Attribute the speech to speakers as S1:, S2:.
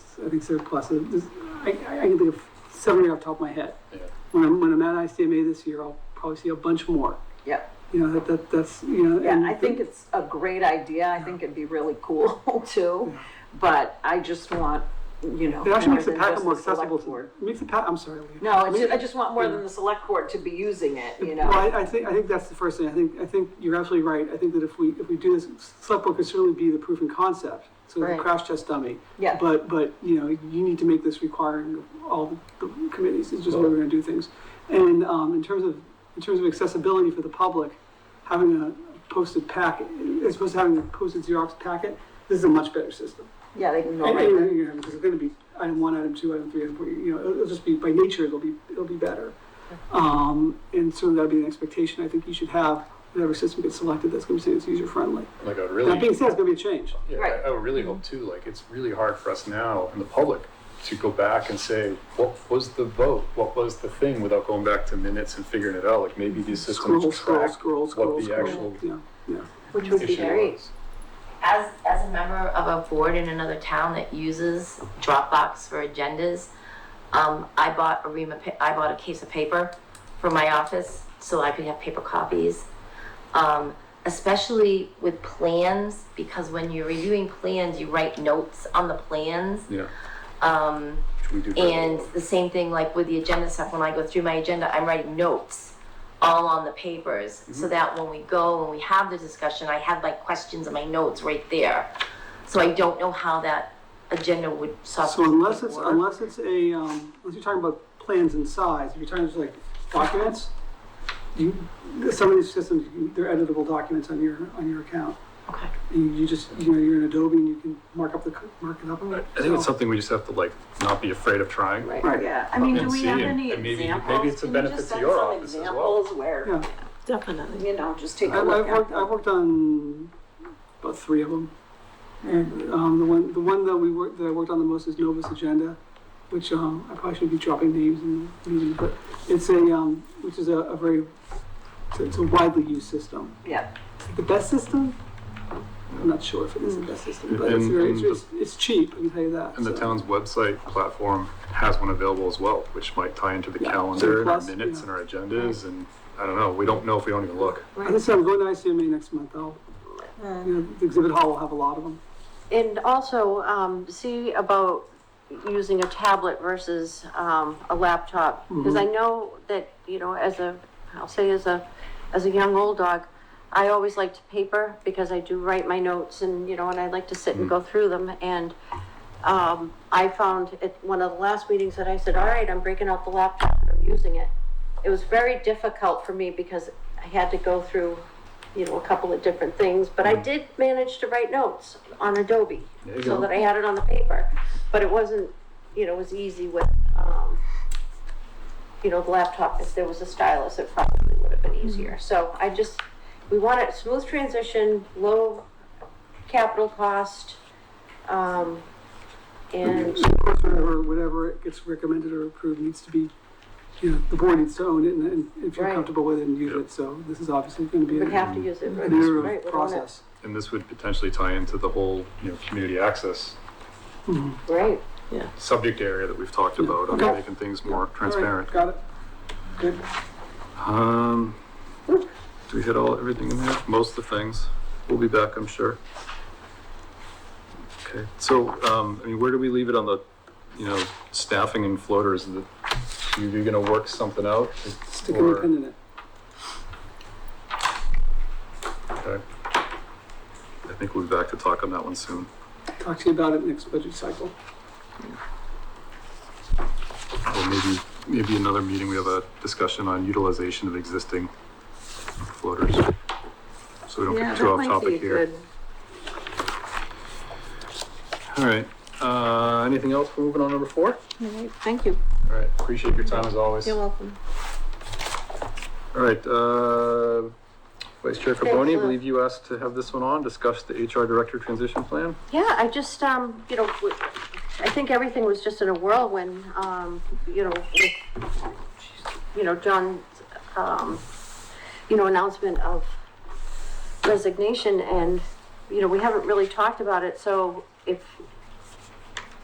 S1: I think surplus, uh, this- I, I I can think of seven right off the top of my head.
S2: Yeah.
S1: When I'm, when I'm at ICMA this year, I'll probably see a bunch more,
S3: Yep.
S1: you know, that, that, that's, you know.
S3: Yeah,
S1: and
S3: I think it's a great idea. I think it'd be really cool too, but I just want, you know.
S1: It actually
S3: more
S1: makes the
S3: than
S1: packet
S3: just
S1: more
S3: the select
S1: accessible to,
S3: board.
S1: makes the pa, I'm sorry, Leah.
S3: No, I just, I just want more than the select board to be using it, you know?
S1: Well, I, I think, I think that's the first thing. I think, I think you're absolutely right. I think that if we, if we do this, select board could certainly be the proof and concept, so the
S4: Right.
S1: crash test dummy.
S3: Yeah.
S1: But, but, you know, you need to make this requiring of all the committees, is just the way we're gonna do things. And, um, in terms of, in terms of accessibility for the public, having a posted packet, as opposed to having a posted Xerox packet, this is a much better system.
S3: Yeah, they can go
S1: And-
S3: right
S1: and
S3: there.
S1: you're gonna- Because it's gonna be item one, item two, item three, item four, you know, it'll it'll just be, by nature, it'll be, it'll be better. Um, and so that'd be an expectation I think you should have, whatever system gets selected, that's gonna say it's user friendly.
S2: Like I would
S1: That being
S2: really,
S1: said, it's gonna be a change.
S2: yeah,
S3: Right.
S2: I- I would really hope too, like it's really hard for us now in the public to go back and say, what was the vote? What was the thing without going back to minutes and figuring it out? Like maybe these
S1: Scroll,
S2: systems
S1: scroll,
S2: track
S1: scroll,
S2: what
S1: scroll,
S2: the
S1: scroll,
S2: actual
S1: yeah, yeah.
S4: Which would be
S2: issue
S4: great.
S2: was.
S4: As, as a member of a board in another town that uses Dropbox for agendas, um, I bought a ream of, pa- I bought a case of paper for my office so I could have paper copies. Um, especially with plans, because when you're reviewing plans, you write notes on the plans.
S2: Yeah.
S4: Um,
S2: Which we do very
S4: And
S2: well.
S4: the same thing like with the agenda stuff, when I go through my agenda, I'm writing notes all on the papers.
S1: Mm-hmm.
S4: So that when we go and we have the discussion, I have like questions in my notes right there. So I don't know how that agenda would
S1: So
S4: software.
S1: unless it's, unless it's a, um, unless you're talking about plans and size, if you're talking just like documents, you, some of these systems, you- they're editable documents on your, on your account.
S4: Okay,
S1: You, you just, you know, you're in Adobe and you can mark up the, co- mark it up.
S2: I think it's something we just have to like not be afraid of trying.
S1: Right.
S3: Right, yeah.
S5: I mean, do
S2: And
S5: we
S2: see,
S5: have
S2: and-
S5: any
S2: and maybe-
S5: examples?
S2: maybe it's a
S5: Can you
S2: benefit
S5: just
S2: to
S5: send
S2: your
S5: some
S2: office as well.
S5: Examples where,
S1: Yeah,
S5: definitely, you know, just take
S1: I,
S5: a
S1: I've
S5: look at.
S1: worked, I've worked on about three of them. Um, the one, the one that we worked, that I worked on the most is Novus Agenda, which, um, I probably shouldn't be dropping names in the meeting, but it's a, um, which is a, a very, it's a- it's a widely used system.
S3: Yeah,
S1: the best system. I'm not sure if it is the best system, but it's
S2: And-
S1: very,
S2: and
S1: it's, it's, it's cheap, I can tell you that.
S2: And the
S1: so.
S2: town's website platform has one available as well, which might tie into the
S1: Yeah.
S2: calendar and our
S1: Surplus,
S2: minutes
S1: yeah.
S2: and our agendas and I don't know, we don't know if we don't even look.
S1: I think so, I'm going to ICMA next month, I'll, you know, the exhibit hall will have a lot of them.
S5: And also, um, see about using a tablet versus, um, a laptop. Because I know that, you know, as a, I'll say as a, as a young old dog, I always liked paper because I do write my notes and, you know, and I like to sit and go through them. And, um, I found at one of the last meetings that I said, all right, I'm breaking out the laptop and I'm using it. It was very difficult for me because I had to go through, you know, a couple of different things, but I did manage to write notes on Adobe.
S2: Mm. There you
S5: So
S2: go.
S5: that I had it on the paper, but it wasn't, you know, it was easy with, um, you know, the laptop, if there was a stylus, it probably would have been
S2: Mm-hmm.
S5: easier. So I just, we want a smooth transition, low capital cost, um, and
S1: Or whatever it gets recommended or approved needs to be, you know, the board needs to own it and, and if you're
S5: Right.
S1: comfortable with it and use it, so this is obviously gonna be
S5: would
S1: an
S5: have to use it. right,
S1: an iterative
S5: right, we're on it.
S1: process.
S2: And this would potentially tie into the whole, you know, community access
S5: Right.
S2: subject area that we've talked about on
S1: Okay.
S2: making things more
S1: All
S2: transparent.
S1: right, Got it? Good.
S2: Um, do we hit all, everything in there? Most of the things. We'll be back, I'm sure. Okay, so, um, I mean, where do we leave it on the, you know, staffing and floaters? Is it- You, you're gonna work something out?
S1: Stick a new
S2: Or-
S1: pin in it.
S2: Okay. I think we'll be back to talk on that one soon.
S1: Talk to you about it next budget cycle.
S2: Or maybe, maybe another meeting, we have a discussion on utilization of existing floaters. So we don't
S5: Yeah,
S2: get too
S5: that
S2: off
S5: might be
S2: topic here.
S5: good.
S2: All right, uh, anything else? We're moving on to number four?
S5: All right, Thank you.
S2: All right, appreciate your time as always.
S5: You're welcome.
S2: All right, uh, Vice Chair Carboni, I
S5: Thanks, Lou.
S2: believe you asked to have this one on, discuss the HR Director Transition Plan.
S5: Yeah, I just, um, you know, w- I think everything was just in a whirlwind, um, you know, with, you know, John's, um, you know, announcement of resignation and, you know, we haven't really talked about it, so if